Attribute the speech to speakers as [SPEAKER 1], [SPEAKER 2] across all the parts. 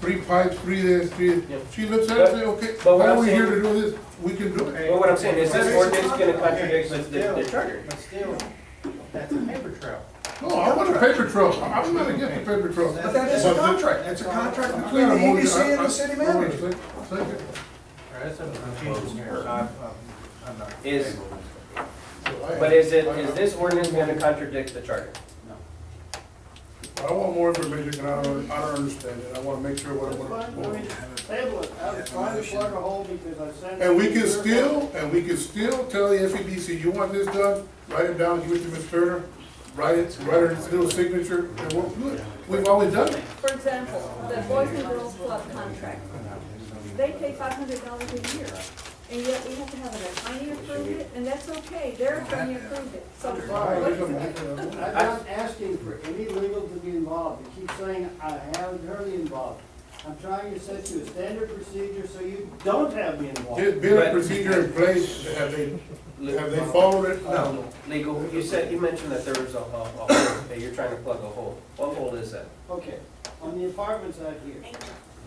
[SPEAKER 1] three pipes, three this, three,
[SPEAKER 2] Yeah.
[SPEAKER 1] she looks at it
[SPEAKER 2] But-
[SPEAKER 1] and say, okay,
[SPEAKER 2] but what
[SPEAKER 1] why are
[SPEAKER 2] I'm
[SPEAKER 1] we here to
[SPEAKER 2] saying-
[SPEAKER 1] do this? We can do it.
[SPEAKER 2] But what I'm saying is this ordinance gonna contradict the, the the charter.
[SPEAKER 3] But still, that's a paper trail.
[SPEAKER 1] No, I want a paper trail, I'm not against the paper trail.
[SPEAKER 4] But that is a contract, it's a contract between the EDC and the city manager.
[SPEAKER 1] Second.
[SPEAKER 3] That's some confusion here. I'm, I'm not.
[SPEAKER 2] Is, but is it, is this ordinance gonna contradict the charter?
[SPEAKER 1] I want more information, and I don't, I don't understand it, I wanna make sure what I
[SPEAKER 5] Fine, I
[SPEAKER 1] want.
[SPEAKER 5] mean, Table it, I'm trying to plug a hole because I sent.
[SPEAKER 1] And we
[SPEAKER 5] it
[SPEAKER 1] can
[SPEAKER 5] to your-
[SPEAKER 1] still, and we can still tell the FEDC, you want this done, write it down, give it to Ms. Turner, write it, write her little signature, and we'll do it. We've always done it.
[SPEAKER 6] For example, the Boys and Girls Club contract, they pay five hundred dollars a year, and yet we have to have an attorney approve it, and that's okay, their attorney approved it, so. what's the-
[SPEAKER 5] I'm not asking for any legal to be involved, you keep saying I have Hurley involved. I'm trying to set you a standard procedure so you don't have me involved.
[SPEAKER 1] There's been a procedure in place, have they, have they followed it?
[SPEAKER 2] No. Legal, you said, you mentioned that there was a, a a hole, that you're trying to plug a hole. What hole is that?
[SPEAKER 5] Okay, on the apartments out here,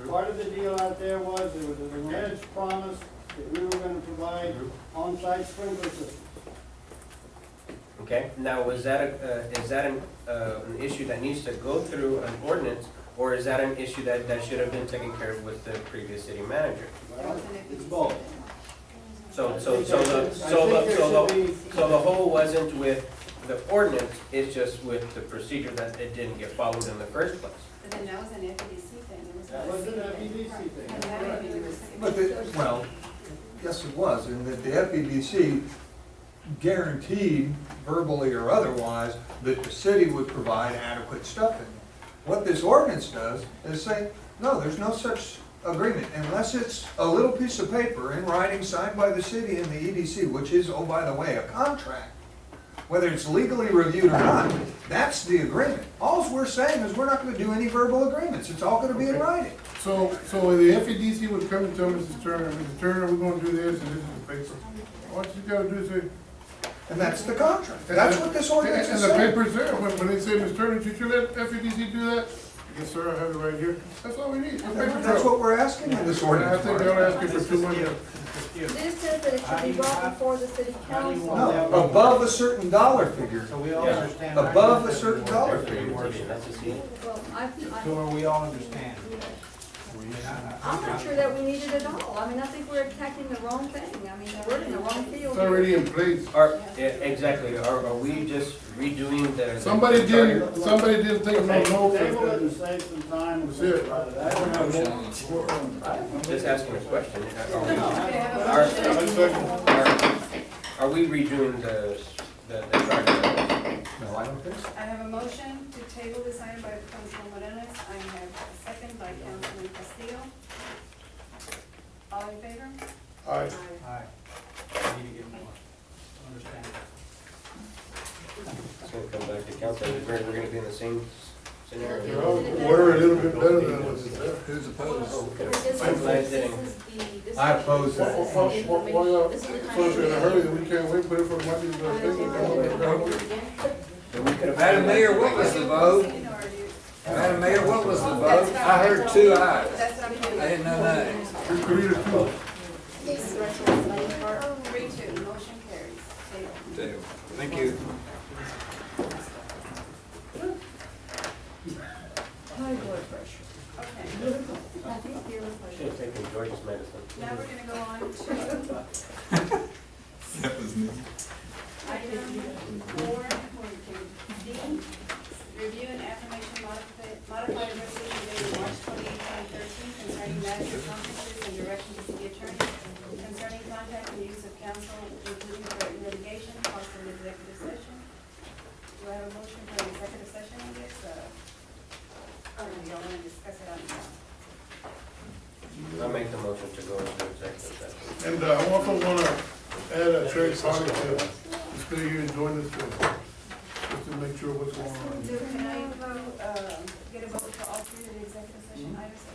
[SPEAKER 5] part of the deal out there was, there was an alleged promise that we were gonna provide on-site sprinkler system.
[SPEAKER 2] Okay, now is that, a- uh, is that an, uh, an issue that needs to go through an ordinance? Or is that an issue that, that should have been taken care of with the previous city manager?
[SPEAKER 5] Well, It's both.
[SPEAKER 2] So, so, so the, so
[SPEAKER 5] I think
[SPEAKER 2] the,
[SPEAKER 5] there
[SPEAKER 2] so
[SPEAKER 5] should
[SPEAKER 2] the,
[SPEAKER 5] be-
[SPEAKER 2] so the hole wasn't with the ordinance, it's just with the procedure that it didn't get followed in the first place.
[SPEAKER 7] But then that was an FEDC thing. It
[SPEAKER 5] That
[SPEAKER 7] not a
[SPEAKER 5] was an
[SPEAKER 7] city
[SPEAKER 5] FEDC thing.
[SPEAKER 7] And that would be the receipt.
[SPEAKER 4] But the, well, yes, it was, and that the FEDC guaranteed verbally or otherwise that the city would provide adequate stuff in. What this ordinance does is say, no, there's no such agreement unless it's a little piece of paper in writing signed by the city and the EDC, which is, oh, by the way, a contract. Whether it's legally reviewed or not, that's the agreement. Alls we're saying is we're not gonna do any verbal agreements. It's all gonna be in writing.
[SPEAKER 1] So, so the FEDC would come and tell Mrs. Turner, Mrs. Turner, we're gonna do this, and this is the paper. What you gotta do is say.
[SPEAKER 4] And that's the contract. That's what this ordinance is
[SPEAKER 1] And the
[SPEAKER 4] saying.
[SPEAKER 1] paper's there, when, when they say, Mrs. Turner, did you let FEDC do that? Yes, sir, I have it right here, that's all we need, a paper
[SPEAKER 4] That's
[SPEAKER 1] trail.
[SPEAKER 4] what we're asking in this
[SPEAKER 1] And I
[SPEAKER 4] ordinance.
[SPEAKER 1] think
[SPEAKER 4] Mark.
[SPEAKER 1] they'll ask you for two months.
[SPEAKER 6] This says that it should be brought before the city council.
[SPEAKER 4] No, above a certain dollar figure.
[SPEAKER 3] So we all
[SPEAKER 2] Yeah.
[SPEAKER 3] understand.
[SPEAKER 4] Above a certain dollar figure.
[SPEAKER 2] That's a C.
[SPEAKER 6] Well, I,
[SPEAKER 3] So
[SPEAKER 6] I,
[SPEAKER 3] are we all understand?
[SPEAKER 6] I'm not sure that we need it at all, I mean, I think we're attacking the wrong thing, I mean, we're in the wrong field.
[SPEAKER 1] It's
[SPEAKER 6] here.
[SPEAKER 1] already in place.
[SPEAKER 2] Are, yeah, exactly, are, are we just redoing the?
[SPEAKER 1] Somebody
[SPEAKER 2] the charter?
[SPEAKER 1] didn't, somebody didn't take no
[SPEAKER 5] Table it and
[SPEAKER 1] notes.
[SPEAKER 5] save some time and
[SPEAKER 1] That's it.
[SPEAKER 5] think about it. I don't have more.
[SPEAKER 2] Just asking a question. Are we-
[SPEAKER 7] Yeah, but-
[SPEAKER 2] Our- Are are we redoing the, the, the charter?
[SPEAKER 4] No, I don't think so.
[SPEAKER 7] I have a motion to table this item by Councilman Morales. I have a second by Councilman Castillo. All in favor?
[SPEAKER 1] Aye.
[SPEAKER 3] Aye. We need to get more. Understand.
[SPEAKER 2] It's gonna come back to council, we're, we're gonna be in the same
[SPEAKER 1] You
[SPEAKER 2] scenario.
[SPEAKER 1] know, we're a little bit better than what's there.
[SPEAKER 4] Who's I
[SPEAKER 8] I
[SPEAKER 4] oppose that.
[SPEAKER 8] This is
[SPEAKER 1] Why- why- why- why y'all-
[SPEAKER 8] This is the
[SPEAKER 1] So if you're in a hurry,
[SPEAKER 8] kind
[SPEAKER 1] we can't wait, put it for Monday's, uh,
[SPEAKER 8] of.
[SPEAKER 1] thing.
[SPEAKER 2] Madam Mayor,
[SPEAKER 7] What was the vote? Madam Mayor, what was the vote? I heard two ayes. That's what I'm hearing. I didn't know that.
[SPEAKER 1] Three to two.
[SPEAKER 8] This restaurant's late part.
[SPEAKER 7] Three, two, motion carries. Table.
[SPEAKER 4] Thank you.
[SPEAKER 6] High blood pressure.
[SPEAKER 7] Okay,
[SPEAKER 6] I think you're right.
[SPEAKER 2] Should've taken George's medicine.
[SPEAKER 7] now we're gonna go on to
[SPEAKER 9] That was me.
[SPEAKER 7] item four point two D. Review and affirmation modifi- modified resolution dated March twenty eighth, twenty thirteen concerning manager conferences and direction to city attorney concerning contact and use of counsel, including threatened litigation, possible executive session. Do I have a motion for an executive session on this? uh, Or do y'all want to discuss it on the
[SPEAKER 2] I make the motion to go into executive session.
[SPEAKER 1] And uh, I also want to add a trade party to, still here and join us, uh, just to make sure what's going on.
[SPEAKER 7] So can I vote, um, get a vote for all three of the executive session items